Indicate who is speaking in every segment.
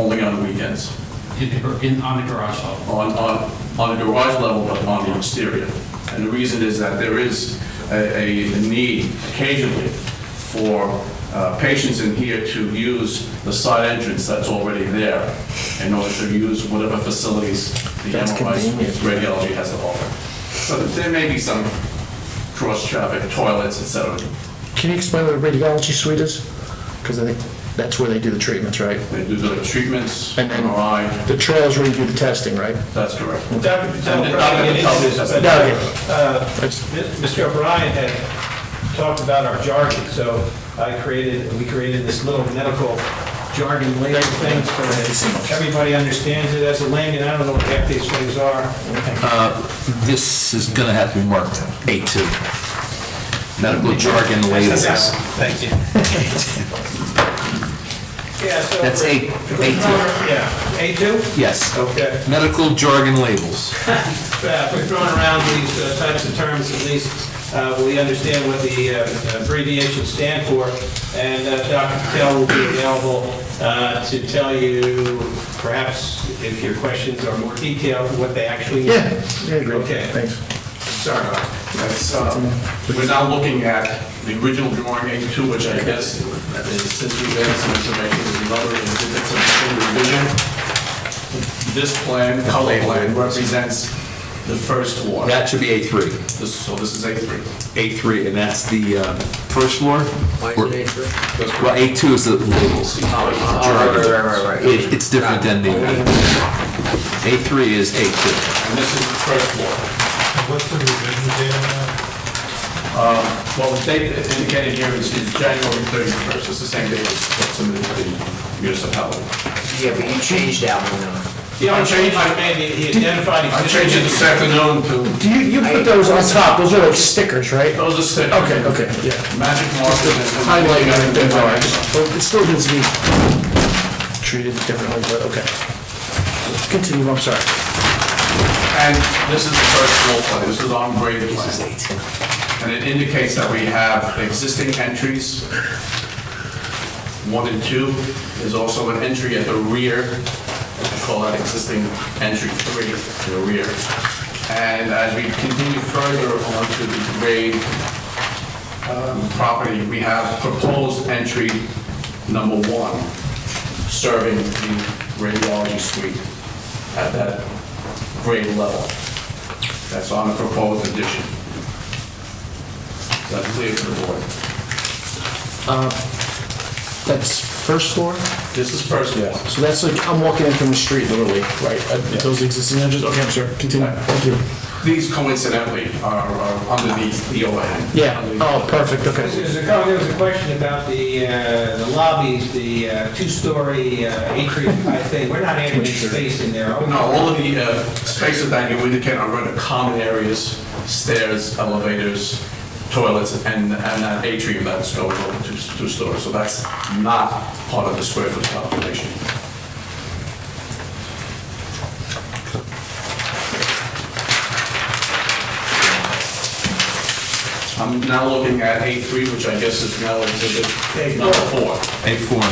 Speaker 1: only on the weekends,
Speaker 2: in the, gar- in, on the garage level.
Speaker 1: on, on, on the garage level, but on the exterior. And the reason is that there is a, a need occasionally for uh, patients in here to use the side entrance that's already there in order to use whatever facilities the
Speaker 3: That's
Speaker 1: MRI
Speaker 3: convenient.
Speaker 1: radiology has to offer. So there may be some cross-traffic, toilets, et cetera.
Speaker 3: Can you explain what a radiology suite is? Because I think that's where they do the treatments, right?
Speaker 1: They do the treatments,
Speaker 3: And then-
Speaker 1: MRI,
Speaker 3: The trail's where you do the testing, right?
Speaker 1: that's correct.
Speaker 4: Dr. Dr. O'Brien, it is-
Speaker 1: No,
Speaker 4: uh,
Speaker 3: That's-
Speaker 4: Mr. O'Brien had talked about our jargon, so I created, we created this little medical jargon label thing so that everybody understands it as a lane, and I don't know what half these things are.
Speaker 5: This is going to have to be marked A2. Medical jargon labels.
Speaker 4: Thank you. Yeah, so.
Speaker 5: That's A, A2.
Speaker 4: Yeah, A2?
Speaker 5: Yes.
Speaker 4: Okay.
Speaker 5: Medical jargon labels.
Speaker 4: Uh, If we're throwing around these uh, types of terms, at least uh, we understand what the uh, abbreviations stand for, and uh, Dr. Patel will be available uh, to tell you, perhaps if your questions are more detailed, what they actually mean.
Speaker 3: Yeah, yeah, great,
Speaker 4: Okay.
Speaker 3: thanks.
Speaker 4: Sorry.
Speaker 1: That's, uh, We're now looking at the original drawing A2, which I guess is since we've had some information, there's another exhibit, some single revision. This plan, color plan, represents the first floor.
Speaker 5: That should be A3.
Speaker 1: This- So this is A3.
Speaker 5: A3, and that's the uh, first floor? Why Well, A2 is the labels. Jargon. It- It's different than the, A3 is A2.
Speaker 1: And this is the first floor.
Speaker 6: What's the revision date on that?
Speaker 1: Um, Well, the date indicated here is is January 31st. It's the same date as what's submitted to the municipality.
Speaker 7: Yeah, but you changed that one.
Speaker 4: The only change I made, he he identified
Speaker 1: I'm
Speaker 4: existing...
Speaker 1: changing this afternoon to,
Speaker 3: Do you, you put those on top, those are like stickers, right?
Speaker 1: those are six.
Speaker 3: Okay, okay, yeah.
Speaker 1: Magic markers and...
Speaker 3: Highlight everything, all right. Well, Oh, It still needs to be treated differently, but okay. Continue, I'm sorry.
Speaker 1: And this is the first floor plan, this is on grade plan. And it indicates that we have existing entries, one and two. There's also an entry at the rear, we call that existing entry three, to the rear. And as we continue further onto the grade um, property, we have proposed entry number one, serving the radiology suite at that grade level. That's on the proposed addition. Is that clear to the board?
Speaker 3: Uh, That's first floor?
Speaker 1: This is first wall.
Speaker 3: So that's like, I'm walking in from the street literally, right? Uh, Those existing edges, okay, I'm sorry, continue, thank you.
Speaker 1: These coincidentally are are underneath the overhang.
Speaker 3: Yeah,
Speaker 1: Underneath.
Speaker 3: oh, perfect, okay.
Speaker 4: There's a, there was a question about the, uh, the lobbies, the uh, two-story uh, atrium type thing. We're not adding any space in there. are we?
Speaker 1: No, all of the uh, spaces that you indicate are in the common areas, stairs, elevators, toilets, and, and that atrium that's going over two, two stories. So that's not part of the square foot calculation. I'm now looking at A3, which I guess is now exhibit number four.
Speaker 5: A4.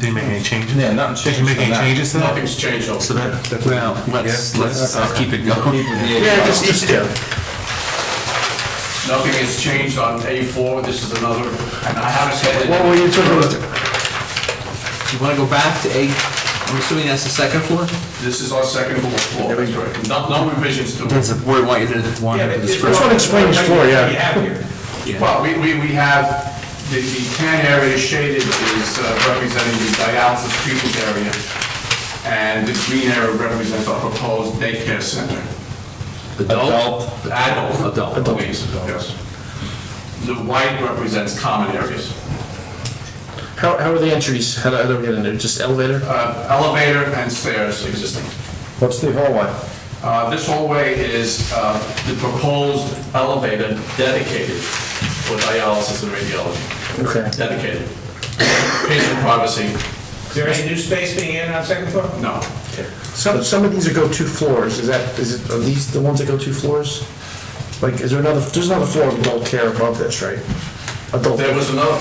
Speaker 6: Did you make any changes?
Speaker 8: Yeah, nothing
Speaker 6: Did you make any changes to that?
Speaker 1: Nothing's changed over.
Speaker 6: So that, that-
Speaker 5: Well, let's, let's uh, keep it going.
Speaker 3: Yeah, just, just, yeah.
Speaker 1: Nothing has changed on A4, this is another, and I haven't said it.
Speaker 3: What were you talking about?
Speaker 5: You want to go back to A, I'm assuming that's the second floor?
Speaker 1: This is our second floor, that's right. No no revisions to
Speaker 5: Does
Speaker 1: it.
Speaker 5: the board want you to, want
Speaker 4: Yeah,
Speaker 5: to
Speaker 4: but it's-
Speaker 5: describe?
Speaker 3: That's what explains four, yeah.
Speaker 4: We have here.
Speaker 1: Well, we, we, we have, the, the tan area shaded is uh, representing the dialysis treatment area, and the green area represents our proposed daycare center.
Speaker 5: Adult?
Speaker 1: Adult.
Speaker 5: Adult.
Speaker 1: Please, yes. The white represents common areas.
Speaker 3: How, how are the entries? How do, how do we get in there? Just elevator?
Speaker 1: Uh, Elevator and stairs existing.
Speaker 8: What's the hallway?
Speaker 1: Uh, This hallway is uh, the proposed elevator dedicated for dialysis and radiology.
Speaker 3: Okay.
Speaker 1: Dedicated. Patient privacy,
Speaker 4: Is there any new space being added on second floor?
Speaker 1: no.
Speaker 3: Some, some of these are go two floors. Is that, is it, are these the ones that go two floors? Like, is there another, there's another floor of adult care above this, right? Adult.
Speaker 1: There was another